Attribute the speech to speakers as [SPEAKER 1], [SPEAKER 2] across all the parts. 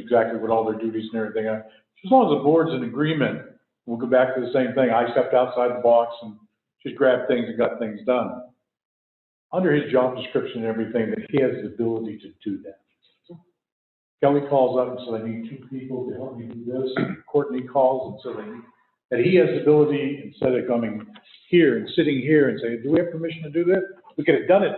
[SPEAKER 1] exactly what all their duties and everything are. As long as the board's in agreement, we'll go back to the same thing. I stepped outside the box and just grabbed things and got things done. Under his job description and everything, that he has the ability to do that. Kelly calls up and says, I need two people to help me do this. Courtney calls and says, I need, that he has the ability, instead of coming here and sitting here and saying, do we have permission to do this? We could have done it.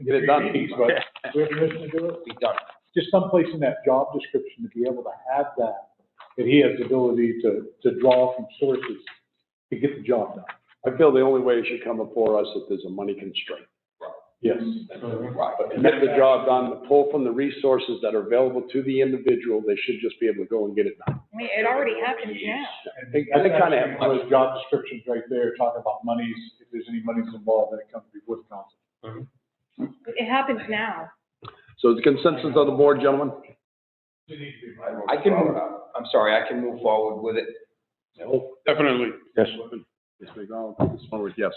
[SPEAKER 1] in
[SPEAKER 2] Get it done.
[SPEAKER 1] three meetings, But do we have permission to do it?
[SPEAKER 2] Be done.
[SPEAKER 1] just someplace in that job description to be able to have that, that he has the ability to, to draw from sources to get the job done.
[SPEAKER 3] I feel the only way it should come before us if there's a money constraint.
[SPEAKER 1] Yes.
[SPEAKER 3] To get the job done, to pull from the resources that are available to the individual, they should just be able to go and get it done.
[SPEAKER 4] I mean, it already happens now.
[SPEAKER 1] I
[SPEAKER 3] think- I think kinda have-
[SPEAKER 1] One of those job descriptions right there, talking about monies, if there's any monies involved, then it comes before the council.
[SPEAKER 4] It happens now.
[SPEAKER 3] So the consensus of the board, gentlemen?
[SPEAKER 2] I can, move- I'm sorry, I can move forward with it.
[SPEAKER 5] Definitely.
[SPEAKER 3] Yes. Yes, we go, this one with yes.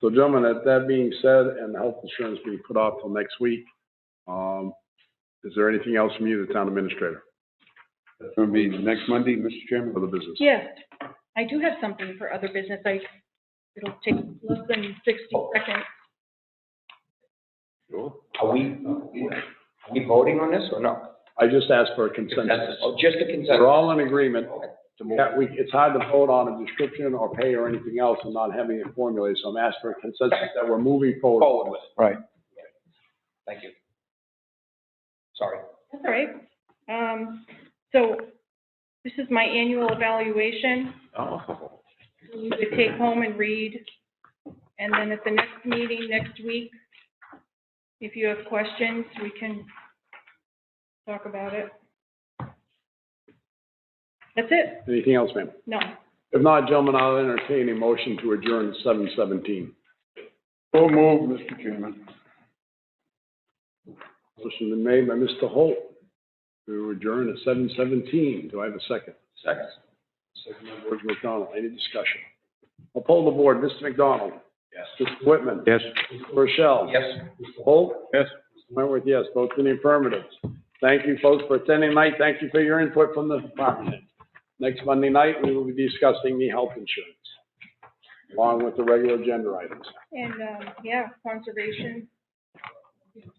[SPEAKER 3] So gentlemen, that, that being said, and the health insurance being put off till next week, um, is there anything else from you, the town administrator,
[SPEAKER 5] It's going to be next Monday, Mr. Chairman.
[SPEAKER 3] for the business?
[SPEAKER 4] Yeah, I do have something for other business. I, it'll take less than sixty seconds.
[SPEAKER 2] Are we, are we voting on this or no?
[SPEAKER 3] I just asked for a consensus.
[SPEAKER 2] Consensus. Oh, just a consensus.
[SPEAKER 3] We're all in agreement.
[SPEAKER 2] Okay.
[SPEAKER 3] Yeah, we, it's hard to vote on a description or pay or anything else and not having it formulated, so I'm asking for a consensus that we're moving forward.
[SPEAKER 2] Forward with it.
[SPEAKER 1] Right.
[SPEAKER 2] Thank you. Sorry.
[SPEAKER 4] That's all right. Um, so this is my annual evaluation.
[SPEAKER 5] Oh.
[SPEAKER 4] You could take home and read. And then at the next meeting next week, if you have questions, we can talk about it. That's it.
[SPEAKER 3] Anything else, ma'am?
[SPEAKER 4] No.
[SPEAKER 3] If not, gentlemen, I'll entertain a motion to adjourn at seven seventeen.
[SPEAKER 5] So moved, Mr. Chairman.
[SPEAKER 3] Motion been made by Mr. Holt to adjourn at seven seventeen. Do I have a second?
[SPEAKER 2] Second.
[SPEAKER 3] Second by George McDonald. Any discussion? I'll poll the board. Mr. McDonald?
[SPEAKER 2] Yes.
[SPEAKER 3] Mr. Whitman?
[SPEAKER 5] Yes.
[SPEAKER 3] Mr. Rochelle?
[SPEAKER 2] Yes.
[SPEAKER 3] Mr. Holt?
[SPEAKER 5] Yes.
[SPEAKER 3] Mr. Wentworth, yes. Votes in the affirmative. Thank you, folks, for attending tonight. Thank you for your input from the department. head. Next Monday night, we will be discussing the health insurance, along with the regular agenda items.
[SPEAKER 4] And, um, yeah, conservation.